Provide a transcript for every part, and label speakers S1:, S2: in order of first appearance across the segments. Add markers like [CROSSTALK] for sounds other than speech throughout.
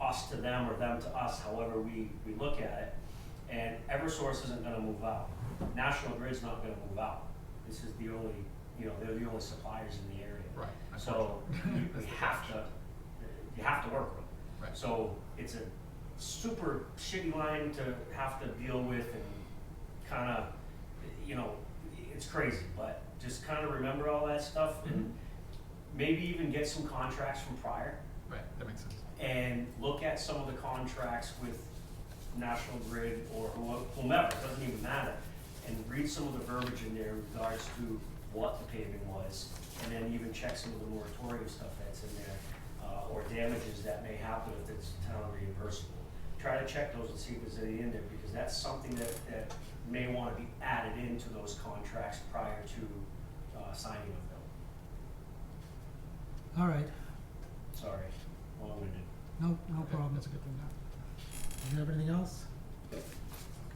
S1: us to them or them to us, however we, we look at it. And Eversource isn't gonna move out. National Grid's not gonna move out. This is the only, you know, they're the only suppliers in the area.
S2: Right, [LAUGHS]
S1: So
S2: unfortunately.
S1: you,
S2: That's
S1: you
S2: the
S1: have to, you have to work with them.
S2: Right.
S1: So it's a super shitty line to have to deal with and kind of, you know, it's crazy, but just kind of remember all that stuff and maybe even get some contracts from prior
S2: Right, that makes sense.
S1: and look at some of the contracts with National Grid or who- whomever, it doesn't even matter. And read some of the verbiage in there in regards to what the paving was, and then even check some of the moratorium stuff that's in there, uh, or damages that may happen if it's town reimbursable. Try to check those and see if there's any in there, because that's something that, that may wanna be added into those contracts prior to, uh, signing of them.
S3: All right,
S1: Sorry, long-winded.
S3: no, no
S2: Okay,
S3: problem.
S2: That's a good thing.
S3: Do you have anything else?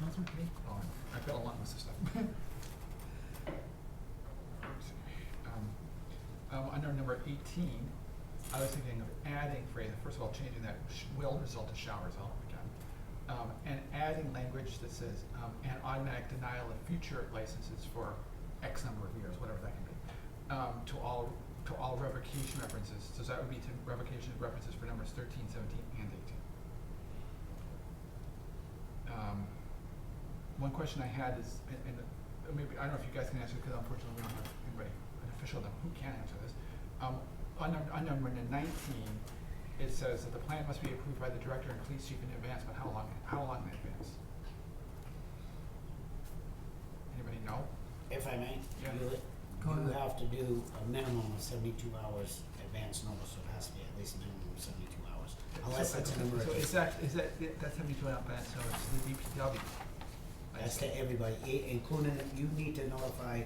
S3: Councilman?
S2: Oh, I've got a lot of this [LAUGHS] stuff. Oops. Um, um, under number eighteen, I was thinking of adding phrase, first of all, changing that sh- will result to shall result again. Um, and adding language that says, um, an automatic denial of future licenses for X number of years, whatever that can be. Um, to all, to all revocation references, so that would be to revocation references for numbers thirteen, seventeen, and eighteen. Um, one question I had is, and, and uh, maybe, I don't know if you guys can answer, because unfortunately we don't have anybody, an official that, who can answer this. Um, on, num- on number nineteen, it says that the plan must be approved by the director and police chief in advance, but how long, how long in advance? Anybody know?
S4: If I may,
S2: Yeah.
S4: Julie,
S3: Go
S4: you
S3: ahead.
S4: have to do a minimum of seventy-two hours advance notice, so it has to be at least a minimum of seventy-two hours, unless
S2: So-
S4: it's an
S2: So is
S4: emergency.
S2: that, is that, that's seventy two out back, so it's the DPW. I
S4: That's
S2: see.
S4: to everybody, i- including, you need to notify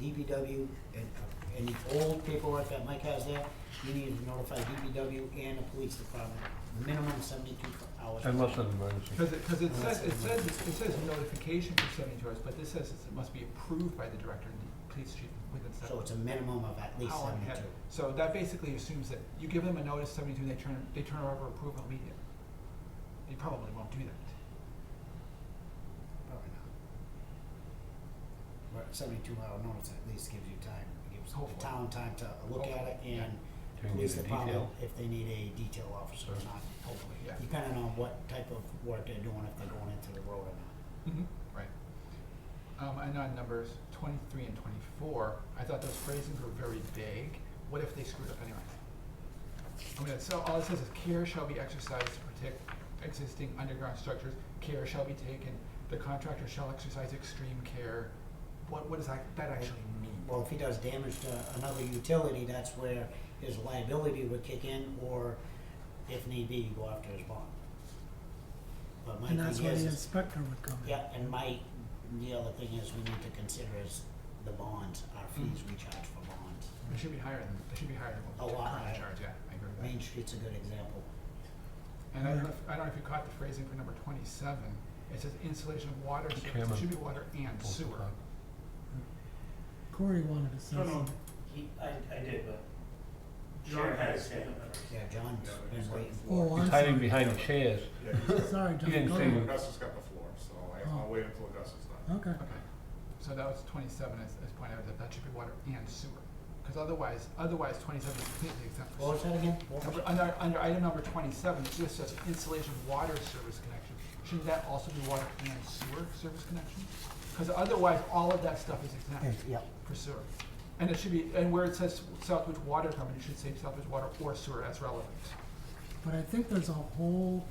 S4: DPW and, uh, and the old paperwork that Mike has there, you need to notify DPW and the police department, minimum seventy-two hours.
S5: Unless an emergency.
S2: Because it, because it
S4: Unless
S2: says, it
S4: it's
S2: says, it says notification for seventy-two hours, but this says it's- it must be approved by the director and the police chief within seven.
S4: So it's a minimum of at least
S2: how long ahead.
S4: seventy-two.
S2: So that basically assumes that you give them a notice seventy-two, they turn, they turn over approval immediately. They probably won't do that.
S4: Probably not. But seventy-two hour notice at least gives you time, gives
S2: Hopefully.
S4: the town time to look at it
S2: Hopefully, yeah.
S4: and
S5: Do we
S4: police
S5: need a
S4: department,
S5: detail?
S4: if they need a detail officer or
S5: Sure.
S4: not,
S2: Hopefully, yeah.
S4: depending on what type of work they're doing, if they're going into the road or not.
S2: Mhm, Right. Um, and on numbers twenty-three and twenty-four, I thought those phrasings were very vague. What if they screwed up anyway? I mean, so all it says is care shall be exercised to protect existing underground structures, care shall be taken, the contractor shall exercise extreme care. What, what does that, that actually mean?
S4: Well, if he does damage to another utility, that's where his liability would kick in, or if need be, you go after his bond. But my
S3: And that's
S4: thing
S3: where
S4: is,
S3: the
S4: is
S3: inspector would come in.
S4: Yeah, and my, the other thing is we need to consider is the bonds, our fees we charge for bonds.
S2: It should be higher than, it should be higher than what
S4: A
S2: the
S4: lot
S2: current
S4: higher.
S2: charge, yeah, I agree with that.
S4: Main Street's a good example.
S2: And I don't know if, I don't know if you caught the phrasing for number twenty-seven, it says installation of water service, it
S5: Chairman.
S2: should be water and sewer.
S3: Corey wanted to say
S1: No, no.
S3: something.
S1: He, I, I did, but.
S6: John
S1: Sharon
S6: had
S1: a
S6: his hand
S1: stand.
S6: up.
S4: Yeah, John's
S6: Yeah,
S4: been
S6: he's got
S4: waiting.
S6: the floor.
S3: Oh,
S5: He's
S3: I'm
S5: hiding
S3: sorry.
S5: behind the chairs.
S6: Yeah, he's got-
S3: [LAUGHS] Sorry, John,
S5: He didn't
S3: go
S5: say
S3: ahead.
S6: Gus has got the floor, so I-
S3: Oh.
S6: I'll wait until Gus is done.
S3: Okay,
S2: Okay, so that was twenty-seven, as, as pointed out, that that should be water and sewer, cause otherwise, otherwise twenty-seven is completely exempt.
S4: What
S2: from
S4: was that again? What was
S2: sewer. Number,
S4: it?
S2: under, under item number twenty-seven, it just says installation of water service connection, shouldn't that also be water and sewer service connection? Cause otherwise, all of that stuff is exempt.
S4: Yes, Yeah,
S2: for sewer. And it should be, and where it says Southwood Water Company, it should say Southwood Water or sewer as relevant.
S3: but I think there's a whole,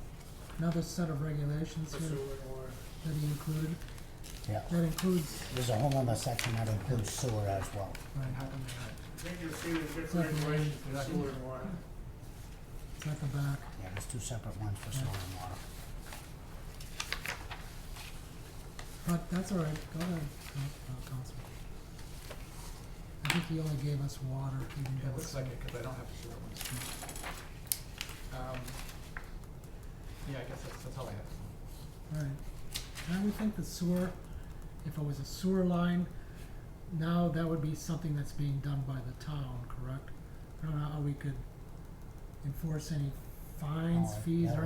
S3: another set of regulations here that he included,
S4: yeah.
S3: that includes,
S4: There's a whole other section that includes sewer as well.
S2: And how come they're
S6: I think you'll see the
S3: Sewer.
S6: different regulations for
S2: Sewer.
S6: sewer and water.
S3: it's at the back.
S4: Yeah, there's two separate ones for sewer and water.
S3: But that's all right, go ahead, Coun- uh, Councilman. I think he only gave us water, he didn't
S2: not? It
S3: give
S2: looks
S3: us
S2: like it, cause I don't have the sewer ones. Um, yeah, I guess that's, that's all I have.
S3: Right. I would think the sewer, if it was a sewer line, now that would be something that's being done by the town, correct? I don't know how we could enforce any fines,
S4: Oh,
S3: fees,
S4: yeah.
S3: or